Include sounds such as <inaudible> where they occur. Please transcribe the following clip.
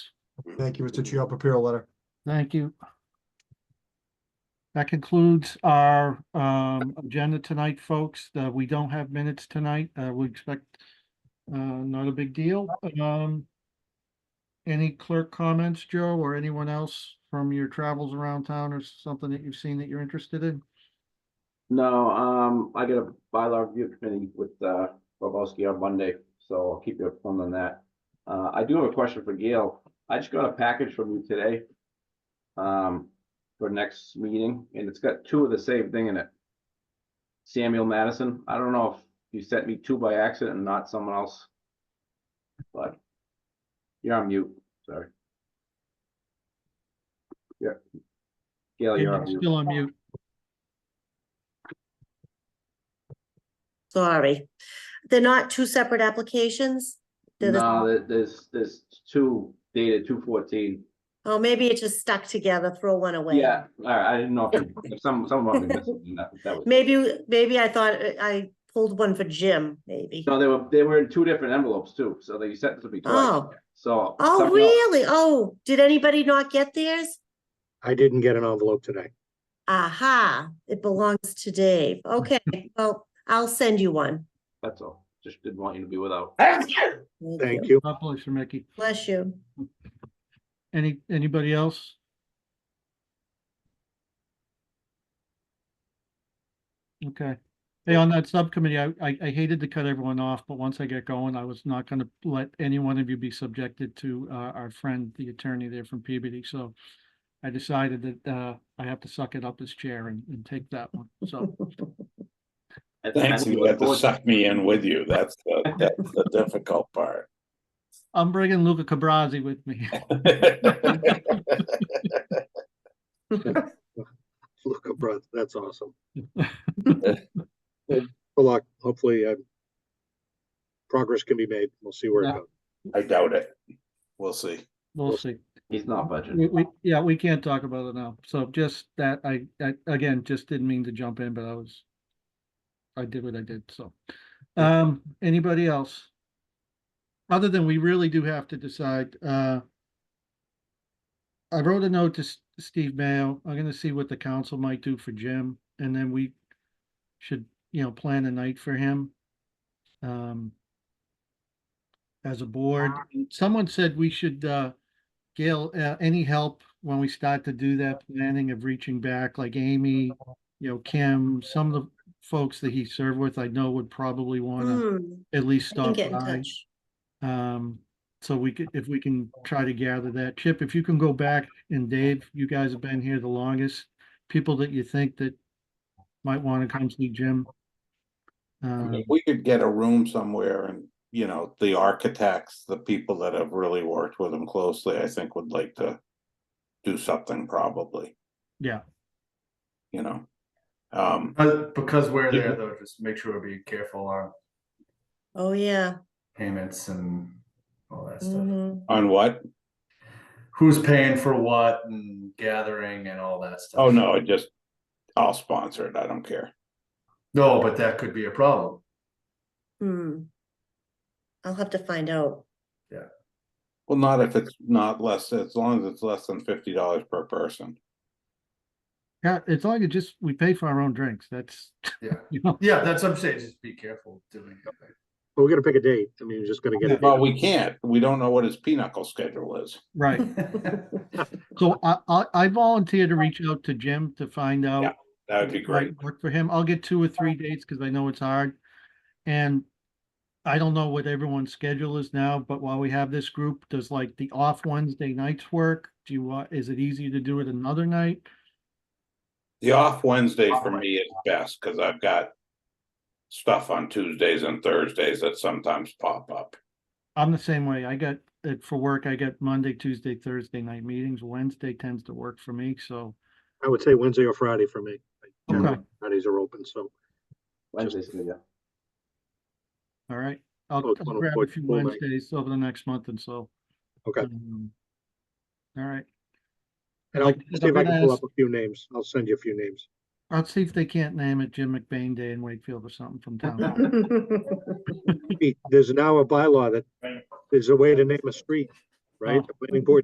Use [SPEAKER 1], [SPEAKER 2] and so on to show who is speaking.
[SPEAKER 1] Thank you, Mr. Chair. I'll prepare a letter.
[SPEAKER 2] Thank you. That concludes our um agenda tonight, folks. Uh, we don't have minutes tonight. Uh, we expect uh, not a big deal. Um. Any clerk comments, Joe, or anyone else from your travels around town or something that you've seen that you're interested in?
[SPEAKER 3] No, um, I got a bylaw review committee with, uh, Bobowski on Monday, so I'll keep you informed on that. Uh, I do have a question for Gail. I just got a package from you today. Um, for next meeting, and it's got two of the same thing in it. Samuel Madison, I don't know if you sent me two by accident and not someone else. But. You're on mute, sorry. Yeah. Gail, Oh, you're on mute.
[SPEAKER 2] Still on mute.
[SPEAKER 4] Sorry. They're not two separate applications? They're the-
[SPEAKER 3] No, there- there's, there's two dated two fourteen.
[SPEAKER 4] Oh, maybe it just stuck together, throw one away.
[SPEAKER 3] Yeah, all right, I didn't know if if some, some of them were missing, that, that was.
[SPEAKER 4] Maybe, maybe I thought I- I pulled one for Jim, maybe.
[SPEAKER 3] No, they were, they were in two different envelopes too, so they sent it to me twice,
[SPEAKER 4] Oh,
[SPEAKER 3] so.
[SPEAKER 4] oh,
[SPEAKER 3] something else-
[SPEAKER 4] really? Oh, did anybody not get theirs?
[SPEAKER 5] I didn't get an envelope today.
[SPEAKER 4] Aha, it belongs to Dave. Okay, well, I'll send you one.
[SPEAKER 3] That's all, just didn't want you to be without.
[SPEAKER 5] Thank you.
[SPEAKER 2] God bless you, Mickey.
[SPEAKER 4] Bless you.
[SPEAKER 2] Any, anybody else? Okay. Hey, on that subcommittee, I, I I hated to cut everyone off, but once I get going, I was not gonna let any one of you be subjected to, uh, our friend, the attorney there from PBD, so I decided that, uh, I have to suck it up as chair and, and take that one,
[SPEAKER 4] <laughs>
[SPEAKER 2] so.
[SPEAKER 3] I think- I
[SPEAKER 6] Thanks,
[SPEAKER 3] think
[SPEAKER 6] you
[SPEAKER 3] it
[SPEAKER 6] have to
[SPEAKER 3] was-
[SPEAKER 6] suck me in with you. That's the, that's the difficult part. <laughs>
[SPEAKER 2] I'm bringing Luca Cabrazzi with me. <laughs>
[SPEAKER 5] Look, a brother, that's awesome. Well, Good luck. Hopefully, uh, progress can be made. We'll see where it
[SPEAKER 2] Yeah.
[SPEAKER 5] goes.
[SPEAKER 6] I doubt it. We'll see.
[SPEAKER 2] We'll see.
[SPEAKER 3] He's not
[SPEAKER 2] We,
[SPEAKER 3] budgeting.
[SPEAKER 2] we, yeah, we can't talk about it now. So just that, I, I, again, just didn't mean to jump in, but I was, I did what I did, so. Um, anybody else? Other than we really do have to decide, uh, I wrote a note to S- Steve Mayo. I'm gonna see what the council might do for Jim, and then we should, you know, plan a night for him. Um, as a board, someone said we should, uh, Gail, uh, any help when we start to do that planning of reaching back, like Amy, you know, Kim, some of the folks that he served with, I know would probably wanna
[SPEAKER 4] Hmm,
[SPEAKER 2] at least
[SPEAKER 4] I can
[SPEAKER 2] stop
[SPEAKER 4] get
[SPEAKER 2] by.
[SPEAKER 4] in touch.
[SPEAKER 2] Um, so we could, if we can try to gather that. Chip, if you can go back, and Dave, you guys have been here the longest, people that you think that might wanna come see Jim. Um,
[SPEAKER 6] If We could get a room somewhere and, you know, the architects, the people that have really worked with him closely, I think would like to do something probably,
[SPEAKER 2] yeah,
[SPEAKER 6] you know? Um,
[SPEAKER 7] But because we're
[SPEAKER 6] Yeah.
[SPEAKER 7] there though, just make sure we be careful on
[SPEAKER 4] Oh, yeah.
[SPEAKER 7] payments and all that stuff.
[SPEAKER 4] mhm.
[SPEAKER 6] on what?
[SPEAKER 7] Who's paying for what and gathering and all that stuff.
[SPEAKER 6] Oh, no, I just, I'll sponsor it. I don't care.
[SPEAKER 7] No, but that could be a problem.
[SPEAKER 4] Hmm. I'll have to find out.
[SPEAKER 6] Well, not if it's not less, as long as it's less than fifty dollars per person.
[SPEAKER 2] yeah, it's like it just, we pay for our own drinks, that's, <laughs>
[SPEAKER 7] Yeah.
[SPEAKER 2] you know.
[SPEAKER 7] Yeah, that's what I'm saying. Just be careful doing it.
[SPEAKER 5] But we gotta pick a date. I mean, we're just gonna get it.
[SPEAKER 6] Well, we can't. We don't know what his pinochle schedule is.
[SPEAKER 7] <laughs>
[SPEAKER 2] Right, so I, I, I volunteer to reach out to Jim to find out
[SPEAKER 6] That would be
[SPEAKER 2] might
[SPEAKER 6] great.
[SPEAKER 2] Work for him. I'll get two or three dates because I know it's hard. And I don't know what everyone's schedule is now, but while we have this group, does like the off Wednesday nights work? Do you want, is it easier to do it another night?
[SPEAKER 6] The off Wednesday for me is best because I've got stuff on Tuesdays and Thursdays that sometimes pop up.
[SPEAKER 2] I'm the same way. I got it for work. I get Monday, Tuesday, Thursday night meetings. Wednesday tends to work for me, so.
[SPEAKER 5] I would say Wednesday or Friday for me.
[SPEAKER 2] Okay,
[SPEAKER 5] Fridays are open, so.
[SPEAKER 3] Wednesday's gonna be-
[SPEAKER 2] all right. I'll
[SPEAKER 5] Oh,
[SPEAKER 2] I'll
[SPEAKER 5] it's on a
[SPEAKER 2] grab a
[SPEAKER 5] foot
[SPEAKER 2] few
[SPEAKER 5] full night.
[SPEAKER 2] Wednesdays over the next month and so.
[SPEAKER 5] Okay.
[SPEAKER 2] Um, All right.
[SPEAKER 5] And I'll
[SPEAKER 2] Like I said,
[SPEAKER 5] see if
[SPEAKER 2] I'm
[SPEAKER 5] I
[SPEAKER 2] gonna
[SPEAKER 5] can pull
[SPEAKER 2] ask-
[SPEAKER 5] up a few names. I'll send you a few names.
[SPEAKER 2] I'll see if they can't name it Jim McBain Day in Wakefield or something from town.
[SPEAKER 5] Pete, There's now a bylaw that there's a way to name a street, right? The planning board